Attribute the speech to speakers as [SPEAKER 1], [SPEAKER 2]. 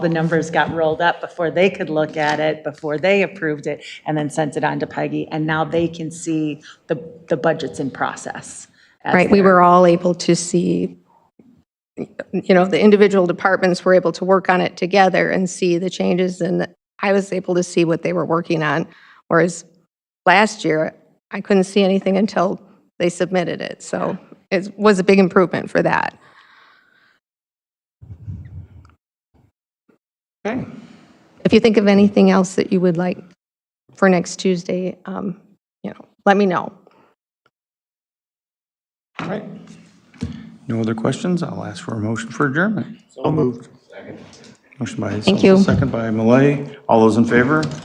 [SPEAKER 1] the numbers got rolled up before they could look at it, before they approved it, and then sent it on to Peggy, and now they can see the, the budgets in process. as
[SPEAKER 2] Right, we
[SPEAKER 1] they're-
[SPEAKER 2] were all able to see, you know, the individual departments were able to work on it together and see the changes, and I was able to see what they were working on, whereas last year, I couldn't see anything until they submitted it, so it was a big improvement for that.
[SPEAKER 3] Okay.
[SPEAKER 2] If you think of anything else that you would like for next Tuesday, um, you know, let me know.
[SPEAKER 3] All right. No other questions? I'll ask for a motion for adjournment. So moved. Motion by
[SPEAKER 2] you.
[SPEAKER 3] Seltzer, second by Malay. All those in favor?